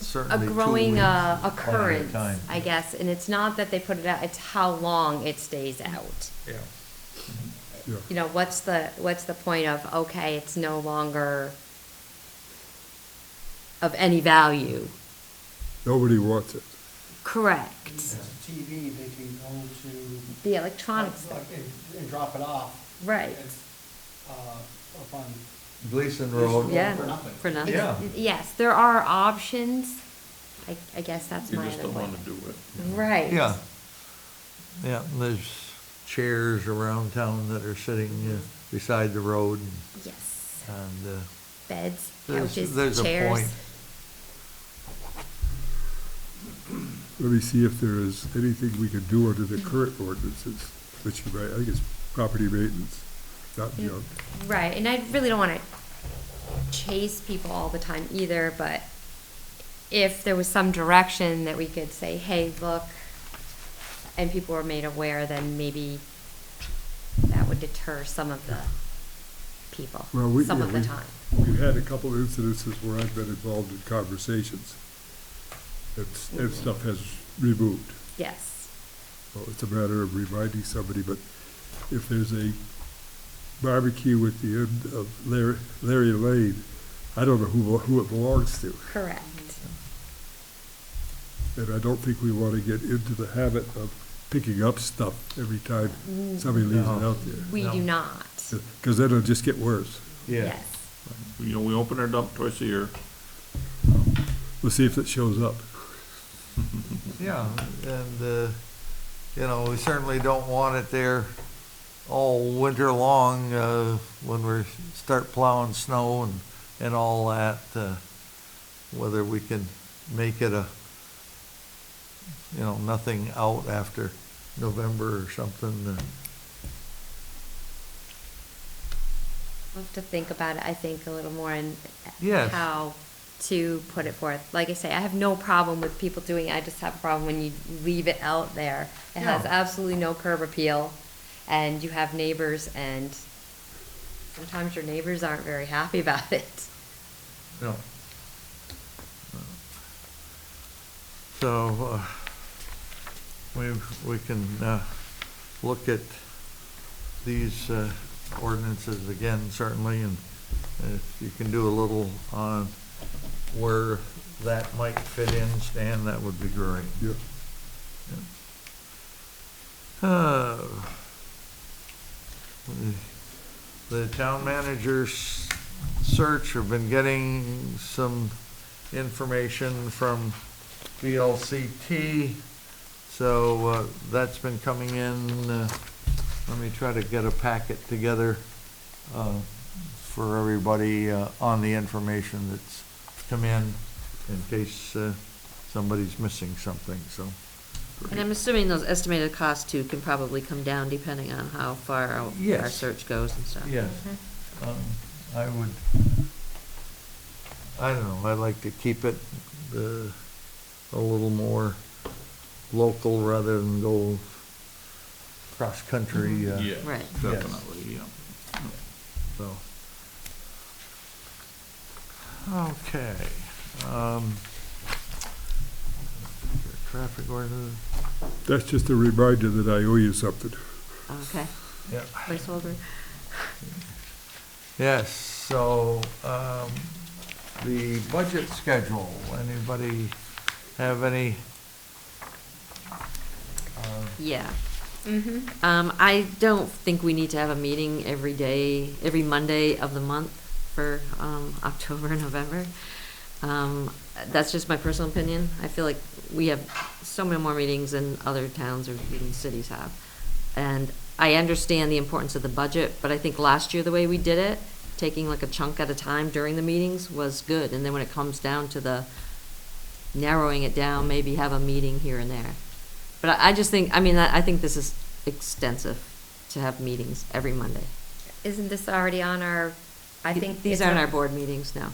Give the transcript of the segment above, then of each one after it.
a certainly two growing weeks uh, on at a occurrence, time. I guess, and it's not that they put it out, it's how long it stays out. Yeah. Yeah. You know, what's the, what's the point of, okay, it's no longer of any value? Nobody wants it. Correct. It's a TV, they can go to. The electronics, like, And and drop it off. Right. It's, uh, up on, Gleason Road. yeah, For nothing. for nothing. Yeah. Yes, there are options. I, I guess that's You my just other don't one. want to do it. Right. Yeah, yeah, and there's chairs around town that are sitting uh, beside the road and, Yes, and, uh, beds, there's, couches, there's a point. chairs. Let me see if there is anything we can do under Mm-hmm. the current ordinances, which you might, I think it's property maintenance, not junk. Right, and I really don't want to chase people all the time either, but if there was some direction that we could say, hey, look, and people were made aware, then maybe that would deter some of the people, Well, we- some yeah, of the we- time. We've had a couple of incidences where I've been involved in conversations, and, s- Mm-hmm. and stuff has removed. Yes, Well, it's a matter of reminding somebody, but if there's a barbecue at the end of Larry, Larry Lane, I don't know who, who it belongs to. correct. Mm-hmm. And I don't think we want to get into the habit of picking up stuff every time somebody leaves it No. out there. We do No. not. Because then it'll just get worse. Yeah, Yes. You know, we open our dump twice a year. We'll see if it shows up. yeah, and, uh, you know, we certainly don't want it there all winter long, uh, when we start plowing snow and, and all that, uh, whether we can make it a, you know, nothing out after November or something, uh, I'll have to think about it, I think, a little more and Yes. how to put it forth. Like I say, I have no problem with people doing it, I just have a problem when you leave it out there. It has No. absolutely no curb appeal, and you have neighbors, and sometimes your neighbors aren't very happy about it. No. So, uh, we, we can, uh, look at these, uh, ordinances again certainly, and if you can do a little on where that might fit in, Stan, that would be great. Yeah. Uh, The town manager's search, have been getting some information from VLCT. So uh, that's been coming in, uh, let me try to get a packet together uh, for everybody uh, on the information that's come in, in case uh, somebody's missing something, so. And I'm assuming those estimated costs too can probably come down depending on how far out our Yes. search goes and stuff. Yes, Mm-hmm. um, I would, I don't know, I'd like to keep it, uh, a little more local rather than go cross-country, uh, Right. Definitely, yeah. so. Okay, um, traffic order, That's just a reminder that I owe you something. Okay, yeah. placeholder. Yes, so, um, the budget schedule, anybody have any? uh, Yeah. Mm-hmm. Um, I don't think we need to have a meeting every day, every Monday of the month for, um, October and November. Um, that's just my personal opinion. I feel like we have so many more meetings than other towns or even cities have. And I understand the importance of the budget, but I think last year, the way we did it, taking like a chunk at a time during the meetings was good. And then when it comes down to the narrowing it down, maybe have a meeting here and there. But I, I just think, I mean, I, I think this is extensive to have meetings every Monday. Isn't this already on our, I think. These aren't our board meetings now.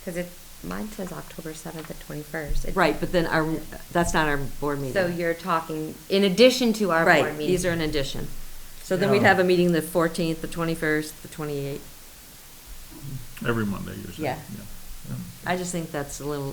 Because it, mine says October seventh and twenty-first. Right, but then our, that's not our board meeting. So you're talking, in addition to our board Right, meeting. these are in addition. So then we'd Yeah. have a meeting the fourteenth, the twenty-first, the twenty-eighth. Every Monday, you're saying? Yeah. I just think that's a little